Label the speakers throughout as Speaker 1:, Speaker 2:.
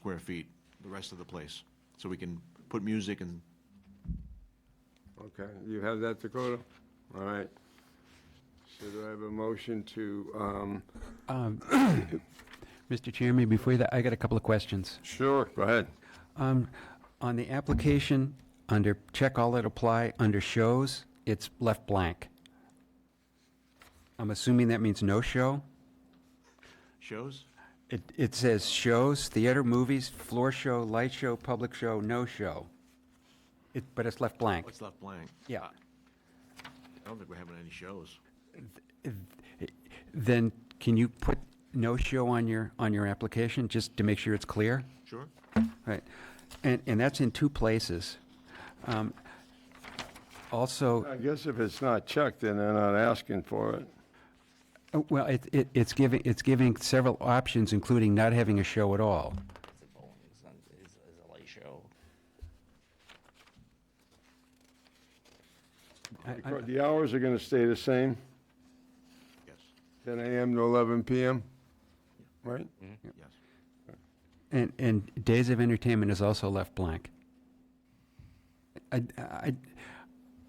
Speaker 1: square feet, the rest of the place, so we can put music and,
Speaker 2: Okay, you have that, Dakota? All right. So do I have a motion to, um,
Speaker 3: Um, Mr. Chairman, before that, I got a couple of questions.
Speaker 2: sure, go ahead.
Speaker 3: Um, On the application, under check all that apply, under shows, it's left blank. I'm assuming that means no show?
Speaker 1: shows?
Speaker 3: It, it says shows, theater, movies, floor show, light show, public show, no show. It, but it's left blank.
Speaker 1: What's left blank?
Speaker 3: Yeah.
Speaker 1: I don't think we're having any shows.
Speaker 3: Then can you put no show on your, on your application, just to make sure it's clear?
Speaker 1: Sure?
Speaker 3: Right, and, and that's in two places. Um, Also,
Speaker 2: I guess if it's not checked, then they're not asking for it.
Speaker 3: oh, well, it, it, it's giving, it's giving several options, including not having a show at all.
Speaker 4: It's a bowling, it's not, it's, it's a light show.
Speaker 3: I- I-
Speaker 2: Daco- The hours are gonna stay the same,
Speaker 1: Yes,
Speaker 2: ten AM to eleven PM, right?
Speaker 1: yes.
Speaker 3: And, and days of entertainment is also left blank. I, I,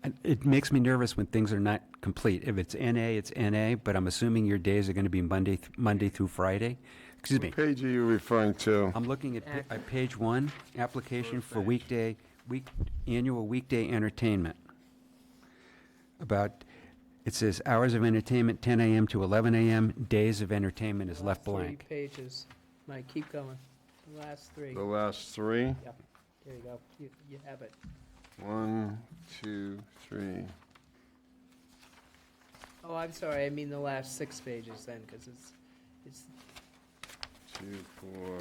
Speaker 3: I- it makes me nervous when things are not complete. If it's NA, it's NA, but I'm assuming your days are gonna be Monday, th- Monday through Friday. Excuse me,
Speaker 2: What page are you referring to?
Speaker 3: I'm looking at, pa- at page one, application for weekday, week, annual weekday entertainment. About, it says hours of entertainment, ten AM to eleven AM, days of entertainment is
Speaker 5: The
Speaker 3: left
Speaker 5: last three
Speaker 3: blank.
Speaker 5: pages. Mike, keep going. The last three.
Speaker 2: The last three?
Speaker 5: Yep, there you go. You, you have it.
Speaker 2: One, two, three.
Speaker 5: Oh, I'm sorry, I mean the last six pages then, because it's, it's,
Speaker 2: Two, four,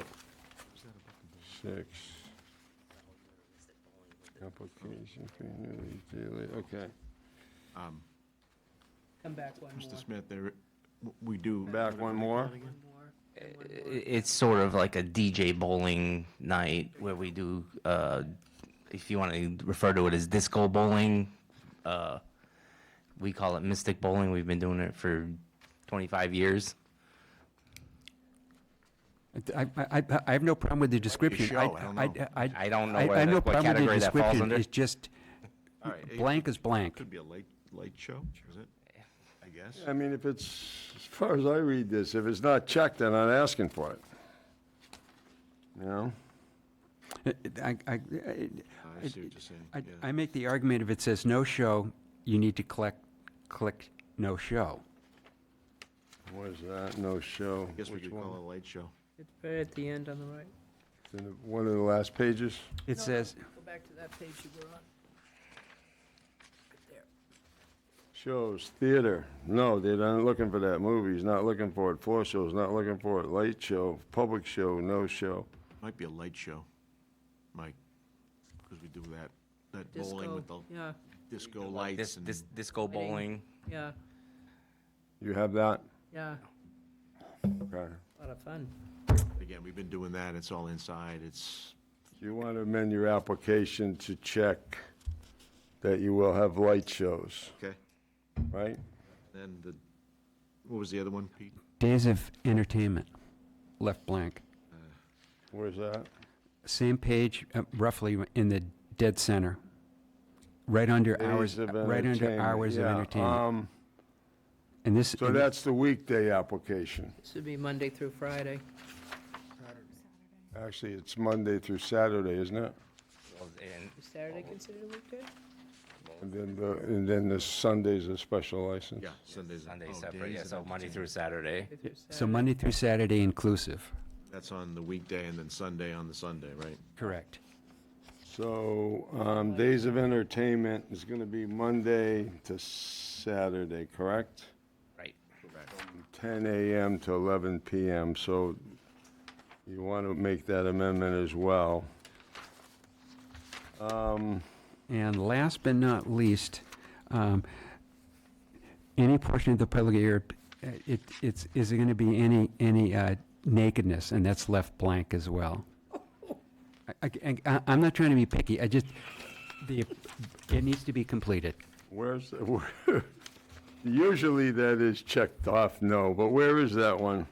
Speaker 2: six. Application for annually daily, okay.
Speaker 1: Um,
Speaker 5: come back one more.
Speaker 1: Mr. Smith, there, w- we do.
Speaker 2: Back one more?
Speaker 5: One more.
Speaker 3: Eh,
Speaker 5: and one more.
Speaker 4: It's sort of like a DJ bowling night where we do, uh, if you want to refer to it as disco bowling, uh, we call it mystic bowling. We've been doing it for 25 years.
Speaker 3: I, I, I- I have no problem with the description.
Speaker 1: show, I don't know.
Speaker 4: I don't know
Speaker 3: I- I have
Speaker 4: where
Speaker 3: no
Speaker 4: that- what
Speaker 3: problem with the
Speaker 4: category that falls
Speaker 3: description.
Speaker 4: under.
Speaker 3: It's just,
Speaker 1: All right, it-
Speaker 3: blank is
Speaker 1: it
Speaker 3: blank.
Speaker 1: Could be a light, light show, is it? I guess.
Speaker 2: I mean, if it's, as far as I read this, if it's not checked, they're not asking for it. You know?
Speaker 3: I, I, I-
Speaker 1: I see what you're saying,
Speaker 3: I,
Speaker 1: yeah.
Speaker 3: I make the argument if it says no show, you need to click, click no show.
Speaker 2: What is that? No show.
Speaker 1: I guess we
Speaker 2: Which
Speaker 1: could
Speaker 2: one?
Speaker 1: call it a light show.
Speaker 5: It's right at the end on the right.
Speaker 2: It's in the- One of the last pages?
Speaker 3: It
Speaker 5: No, no,
Speaker 3: says,
Speaker 5: Go back to that page you were on. Right there.
Speaker 2: Shows, theater. No, they're not looking for that. Movies, not looking for it. Floor shows, not looking for it. Light show, public show, no show.
Speaker 1: Might be a light show, Mike, because we do that, that bowling with the
Speaker 5: Disco, yeah,
Speaker 1: disco
Speaker 4: This,
Speaker 1: lights and.
Speaker 4: this disco
Speaker 5: Lighting.
Speaker 4: bowling.
Speaker 5: yeah,
Speaker 2: You have that?
Speaker 5: yeah.
Speaker 2: Okay.
Speaker 5: A lot of fun.
Speaker 1: Again, we've been doing that, it's all inside, it's,
Speaker 2: You want to amend your application to check that you will have light shows,
Speaker 1: okay.
Speaker 2: right?
Speaker 1: Then the, what was the other one, Pete?
Speaker 3: days of entertainment, left blank.
Speaker 2: Where's that?
Speaker 3: Same page, uh, roughly in the dead center, right under hours, uh,
Speaker 2: Days of
Speaker 3: right under
Speaker 2: entertainment.
Speaker 3: hours of
Speaker 2: Yeah,
Speaker 3: entertainment.
Speaker 2: um,
Speaker 3: And this,
Speaker 2: So that's the weekday application.
Speaker 5: This would be Monday through Friday.
Speaker 2: Actually, it's Monday through Saturday, isn't it?
Speaker 4: And
Speaker 5: Is Saturday considered a weekday?
Speaker 2: And then the, and then the Sunday's a special license.
Speaker 1: Yeah, Sundays.
Speaker 4: Sunday
Speaker 1: oh,
Speaker 4: separate,
Speaker 1: days
Speaker 4: yeah,
Speaker 1: and
Speaker 4: so Monday
Speaker 1: entertainment.
Speaker 4: through Saturday.
Speaker 5: Monday through
Speaker 3: so
Speaker 5: Saturday.
Speaker 3: Monday through Saturday inclusive.
Speaker 1: That's on the weekday and then Sunday on the Sunday, right?
Speaker 3: Correct.
Speaker 2: So, um, days of entertainment is gonna be Monday to Saturday, correct?
Speaker 4: Right.
Speaker 2: Ten AM to eleven PM, so you want to make that amendment as well.
Speaker 3: And last but not least, um, any portion of the public area, uh, it, it's, is there gonna be any, any uh, nakedness, and that's left blank as well. I, am not trying to be picky, I just, the, it needs to be completed.
Speaker 2: Where's, the- where- usually that is checked off, no, but where is that one?